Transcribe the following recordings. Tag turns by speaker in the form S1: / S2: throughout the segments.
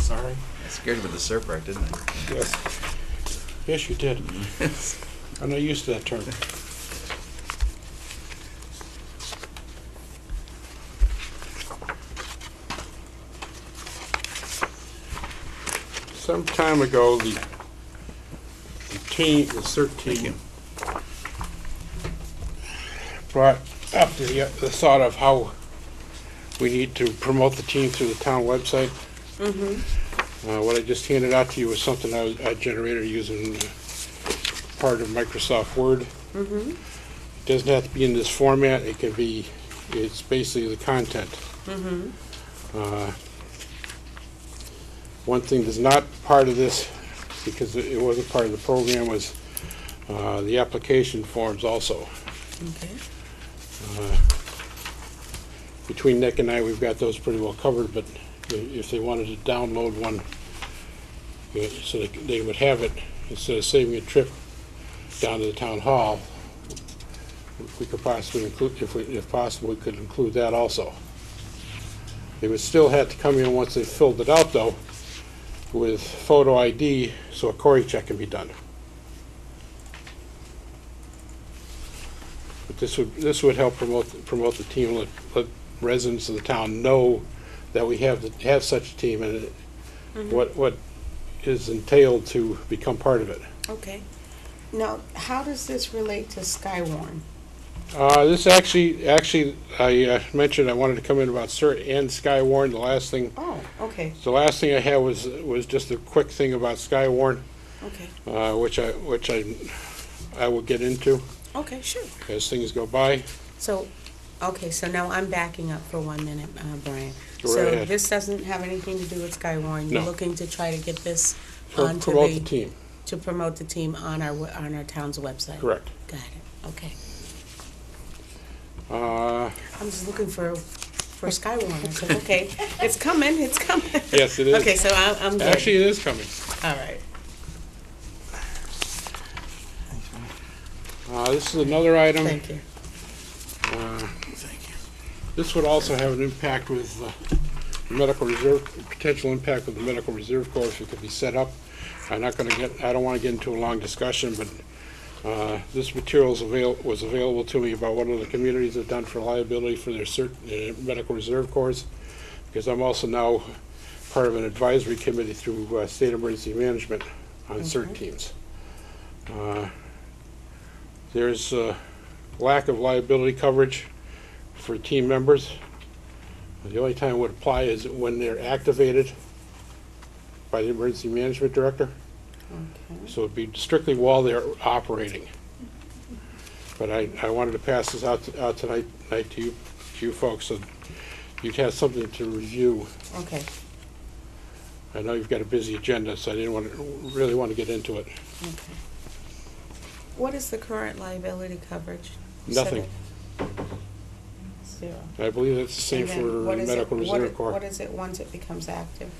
S1: Scared you with the surf rack, didn't
S2: Yes. Yes, you did.
S1: I?
S2: I'm not used to that term. Some time ago, the the team, the CERT team brought up the, uh, the thought of how we need to promote the team through the town website. Uh, What I just handed out to you was something I was- I generated using uh, part of Microsoft Word. It doesn't have to be in this format, it can be, it's basically the content. Uh, One thing that's not part of this, because it it wasn't part of the program, was uh, the application forms also.
S3: Okay.
S2: Uh, Between Nick and I, we've got those pretty well covered, but i- if they wanted to download one, uh, so they c- they would have it, instead of saving a trip down to the town hall, we could possibly include, if we, if possible, we could include that also. They would still have to come in once they filled it out, though, with photo ID, so a Cory check can be done. But this would, this would help promote, promote the team, let, let residents of the town know that we have, have such a team and it- what, what is entailed to become part of it.
S3: Okay. Now, how does this relate to Skywarn?
S2: Uh, this actually, actually, I uh, mentioned I wanted to come in about CERT and Skywarn. The last thing,
S3: Oh, okay,
S2: the last thing I had was, was just a quick thing about Skywarn,
S3: okay,
S2: uh, which I, which I, I will get into
S3: okay, sure.
S2: as things go by.
S3: So, okay, so now I'm backing up for one minute, uh, Brian.
S2: Go right
S3: So
S2: ahead.
S3: this doesn't have anything to do with Skywarn? You're
S2: No.
S3: looking to try to get this
S2: Pro-
S3: onto
S2: Promote the
S3: the,
S2: team,
S3: to promote the team on our, we- on our town's website?
S2: correct.
S3: Got it, okay.
S2: Uh,
S3: I'm just looking for, for Skywarn. I said, okay, it's coming, it's coming.
S2: Yes, it is.
S3: Okay, so I'm, I'm good.
S2: Actually, it is coming.
S3: All right.
S2: Uh, this is another item.
S3: Thank you.
S2: Uh, This would also have an impact with uh, medical reserve, potential impact with the medical reserve corps if it could be set up. I'm not gonna get, I don't wanna get into a long discussion, but uh, this material's avail, was available to me about what other communities have done for liability for their cert, uh, medical reserve corps, because I'm also now part of an advisory committee through uh, State Emergency Management on cert teams. Uh, There's uh, lack of liability coverage for team members. The only time it would apply is when they're activated by the emergency management director.
S3: Okay.
S2: So it'd be strictly while they're operating. But I, I wanted to pass this out, to- out tonight, night to you, to you folks, so you'd have something to review.
S3: Okay.
S2: I know you've got a busy agenda, so I didn't want to, really want to get into it.
S3: Okay. What is the current liability coverage? You said
S2: Nothing.
S3: it- Zero.
S2: I believe that's the same
S3: And
S2: for
S3: then what is it-
S2: medical
S3: what
S2: reserve
S3: it-
S2: corps.
S3: What is it once it becomes active?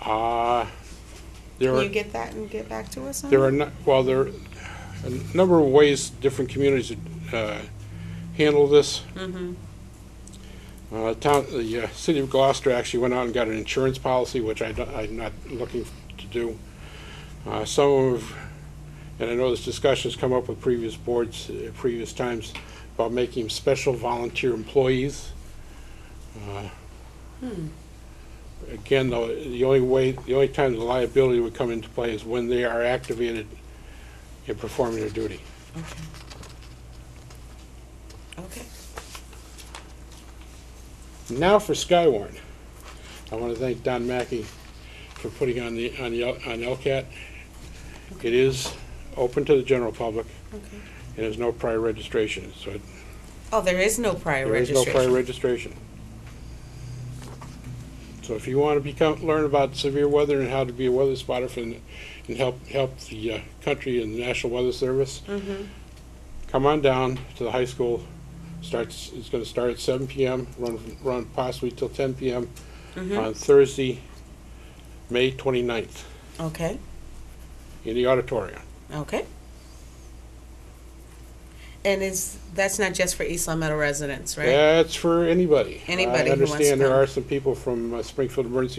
S2: Uh, there
S3: Can
S2: are.
S3: you get that and get back to us on
S2: There are,
S3: it?
S2: no- well, there are a number of ways different communities uh, handle this. Uh, Town, the uh, city of Gloucester actually went out and got an insurance policy, which I don't- I'm not looking to do. Uh, Some of, and I know this discussion's come up with previous boards, uh, previous times, about making special volunteer employees. Uh, Again, though, the only way, the only time the liability would come into play is when they are activated in performing their duty.
S3: Okay. Okay.
S2: Now for Skywarn. I want to thank Don Mackey for putting on the, on the, L- on LCAT. It is open to the general public,
S3: Okay.
S2: and there's no prior registration, so it-
S3: Oh, there is no prior
S2: there is no
S3: registration.
S2: prior registration. So if you want to become, learn about severe weather and how to be a weather spotter for, the- and help, help the uh, country and the National Weather Service,
S3: Mhm.
S2: come on down to the high school. Starts, it's gonna start at seven PM, run, run possibly till ten PM
S3: Mm-hmm.
S2: on Thursday, May 29th,
S3: Okay,
S2: in the auditorium.
S3: okay. And is, that's not just for East Long Meadow residents, right?
S2: That's for anybody.
S3: Anybody who wants
S2: I understand there
S3: to come.
S2: are some people from uh, Springfield Emergency